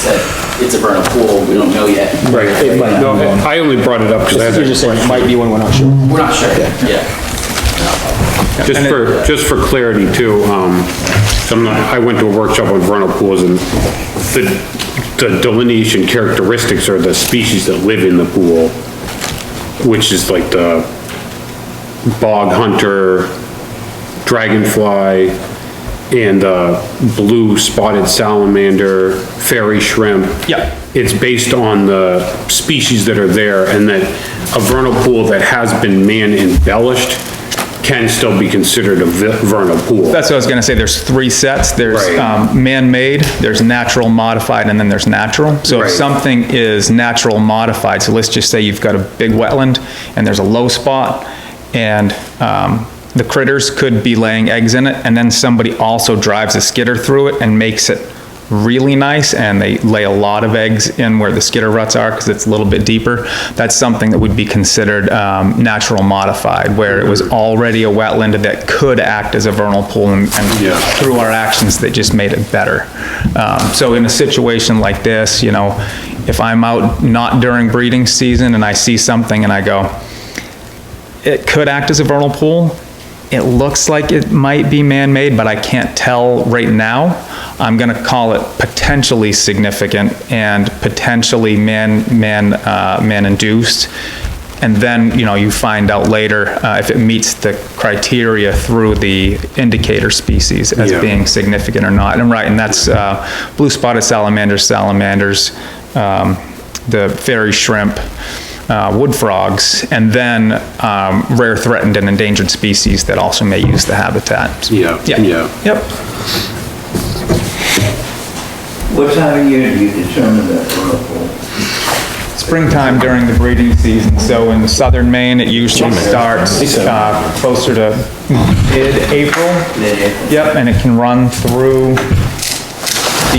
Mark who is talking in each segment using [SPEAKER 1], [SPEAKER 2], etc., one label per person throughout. [SPEAKER 1] said, it's a vernal pool, we don't know yet.
[SPEAKER 2] Right.
[SPEAKER 3] It might
[SPEAKER 2] No,
[SPEAKER 3] be one.
[SPEAKER 2] I only brought it up because I
[SPEAKER 3] You're
[SPEAKER 2] had,
[SPEAKER 3] just saying it might be one, we're not sure.
[SPEAKER 1] We're not sure, yeah.
[SPEAKER 2] just for, just for clarity too, um, some, I went to a workshop on vernal pools and the, the delineation characteristics are the species that live in the pool, which is like the bog hunter, dragonfly, and, uh, blue spotted salamander, fairy shrimp.
[SPEAKER 3] Yeah.
[SPEAKER 2] It's based on the species that are there and that a vernal pool that has been man embellished can still be considered a vi- vernal pool.
[SPEAKER 4] That's what I was gonna say, there's three sets, there's,
[SPEAKER 2] Right.
[SPEAKER 4] um, man-made, there's natural, modified, and then there's natural. So if
[SPEAKER 2] Right.
[SPEAKER 4] something is natural modified, so let's just say you've got a big wetland, and there's a low spot, and, um, the critters could be laying eggs in it, and then somebody also drives a skidder through it and makes it really nice, and they lay a lot of eggs in where the skidder ruts are, because it's a little bit deeper. That's something that would be considered, um, natural modified, where it was already a wetland that could act as a vernal pool, and and
[SPEAKER 2] Yeah.
[SPEAKER 4] through our actions that just made it better. Um, So in a situation like this, you know, if I'm out not during breeding season and I see something and I go, it could act as a vernal pool, it looks like it might be man-made, but I can't tell right now, I'm gonna call it potentially significant and potentially man, man, uh, man-induced. And then, you know, you find out later uh, if it meets the criteria through the indicator species as
[SPEAKER 2] Yeah.
[SPEAKER 4] being significant or not. And right, and that's uh, blue spotted salamanders, salamanders, um, the fairy shrimp, uh, wood frogs, and then um, rare threatened and endangered species that also may use the habitat.
[SPEAKER 2] Yeah, yeah.
[SPEAKER 4] Yep.
[SPEAKER 5] What time of year do you determine that whirlpool?
[SPEAKER 4] Springtime during the breeding season, so in southern Maine, it usually starts uh, closer to mid-April.
[SPEAKER 5] Mid-April.
[SPEAKER 4] Yep, and it can run through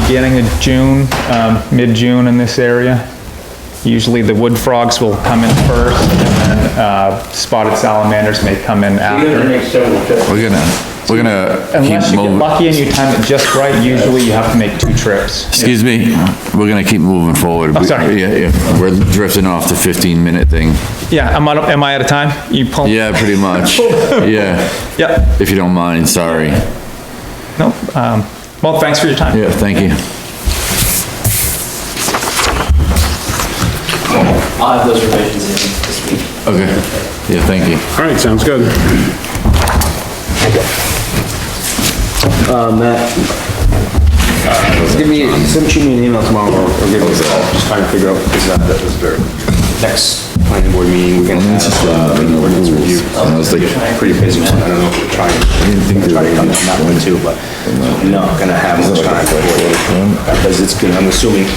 [SPEAKER 4] beginning of June, um, mid-June in this area. Usually the wood frogs will come in first, and then uh, spotted salamanders may come in
[SPEAKER 5] You have to
[SPEAKER 4] after.
[SPEAKER 5] make several trips.
[SPEAKER 6] We're gonna, we're gonna
[SPEAKER 4] Unless
[SPEAKER 6] keep
[SPEAKER 4] you get
[SPEAKER 6] moving,
[SPEAKER 4] lucky and you time it just right, usually you have to make two trips.
[SPEAKER 6] excuse me, we're gonna keep moving forward. We-
[SPEAKER 4] sorry.
[SPEAKER 6] Yeah, yeah, we're drifting off the 15-minute thing.
[SPEAKER 4] Yeah, am I, am I out of time? You pull?
[SPEAKER 6] Yeah, pretty much, yeah,
[SPEAKER 4] Yep,
[SPEAKER 6] if you don't mind, sorry.
[SPEAKER 4] no, um, well, thanks for your time.
[SPEAKER 6] Yeah, thank you.
[SPEAKER 1] I'll have those revisions in this week.
[SPEAKER 6] Okay, yeah, thank you.
[SPEAKER 2] All right, sounds good.
[SPEAKER 3] Um, Matt, give me, send shoot me an email tomorrow, or or give me a call, just trying to figure out exactly that was there. Next planning board meeting, we're gonna have, uh, an ordinance review.
[SPEAKER 6] I was like,
[SPEAKER 3] Pretty busy, one. I don't know if we're trying, trying to get on that one too, but not gonna have much time for it. Because it's gonna, I'm assuming,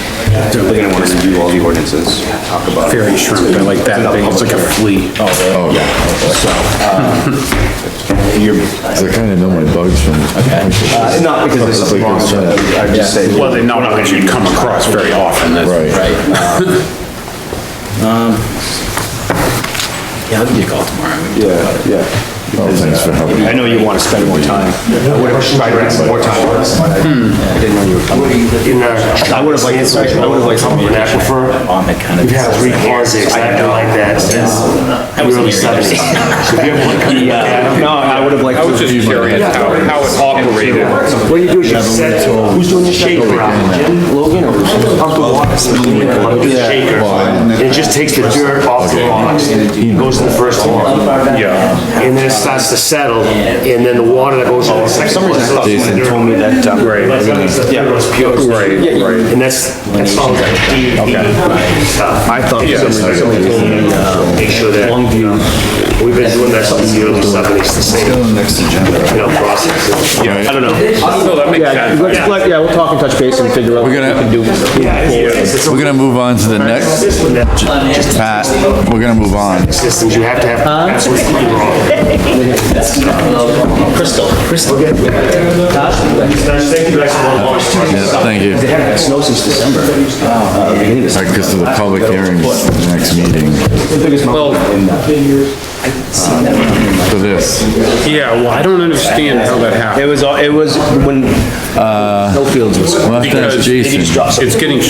[SPEAKER 3] they're gonna wanna review all the ordinances, talk about. it.
[SPEAKER 2] Fairy shrimp, I like that thing, it's like a flea.
[SPEAKER 6] oh, yeah,
[SPEAKER 3] So, um, you're,
[SPEAKER 6] I kinda know my bugs from.
[SPEAKER 3] Uh, Not because this is
[SPEAKER 6] Like
[SPEAKER 3] long,
[SPEAKER 6] I said.
[SPEAKER 3] but I just say,
[SPEAKER 2] Well, they're not gonna you come across very often, that's.
[SPEAKER 6] Right,
[SPEAKER 1] Yeah, I'll give you a call tomorrow.
[SPEAKER 3] yeah, yeah.
[SPEAKER 6] oh, thanks for helping.
[SPEAKER 3] I know you want to spend more time. I would have tried to spend more time on this, but I I didn't know you were coming. I would have liked, uh, I would have liked something in aquifer.
[SPEAKER 7] We've had three cars exactly like that since the early seventies.
[SPEAKER 3] uh, No, I would have liked.
[SPEAKER 2] I was just curious how, how it operated.
[SPEAKER 3] What do you do? Who's doing your
[SPEAKER 7] Shaker oxygen,
[SPEAKER 3] Logan or? Uncle
[SPEAKER 7] like
[SPEAKER 3] Wallace?
[SPEAKER 7] the shaker. It just takes the dirt off the logs,
[SPEAKER 3] Hmm.
[SPEAKER 7] It goes to the first log.
[SPEAKER 2] Yeah,
[SPEAKER 7] And then it starts to settle, and then the water that
[SPEAKER 3] Oh,
[SPEAKER 7] goes to the second log. is also
[SPEAKER 6] Jason
[SPEAKER 7] dirt.
[SPEAKER 3] Told me that, um,
[SPEAKER 2] right,
[SPEAKER 7] But it's not- it's the dirt that's pure.
[SPEAKER 2] right, right.
[SPEAKER 7] And that's, that's all that DEP stuff.
[SPEAKER 3] I thought.
[SPEAKER 2] Yeah.
[SPEAKER 3] for some reason somebody told me, uh,
[SPEAKER 7] Make sure that, we've been doing that since the early seventies, the same,
[SPEAKER 6] Next agenda.
[SPEAKER 7] you know, process. I don't know.
[SPEAKER 2] No, that makes
[SPEAKER 3] Yeah,
[SPEAKER 2] sense.
[SPEAKER 3] let's, let- yeah, we'll talk and touch base and figure out what
[SPEAKER 6] We're
[SPEAKER 3] we
[SPEAKER 6] gonna-
[SPEAKER 3] can do.
[SPEAKER 7] Yeah, it's- it's a
[SPEAKER 6] We're gonna move on to the next,
[SPEAKER 7] system that
[SPEAKER 6] Pat, we're gonna move on.
[SPEAKER 7] systems you have to have. That's what's wrong.
[SPEAKER 1] Crystal. Crystal.
[SPEAKER 7] That's- thank you, that's a lot of-
[SPEAKER 6] Yeah, thank you.
[SPEAKER 3] They haven't had snow since December. Uh, beginning of December.
[SPEAKER 6] Because of the public hearings, the next meeting,
[SPEAKER 3] The biggest mountain in, uh,
[SPEAKER 6] for this.
[SPEAKER 2] Yeah, well, I don't understand how that happened.
[SPEAKER 3] It was, all- it was when snowfields was.
[SPEAKER 6] Well, that's
[SPEAKER 2] Because
[SPEAKER 6] Jason.
[SPEAKER 2] it's getting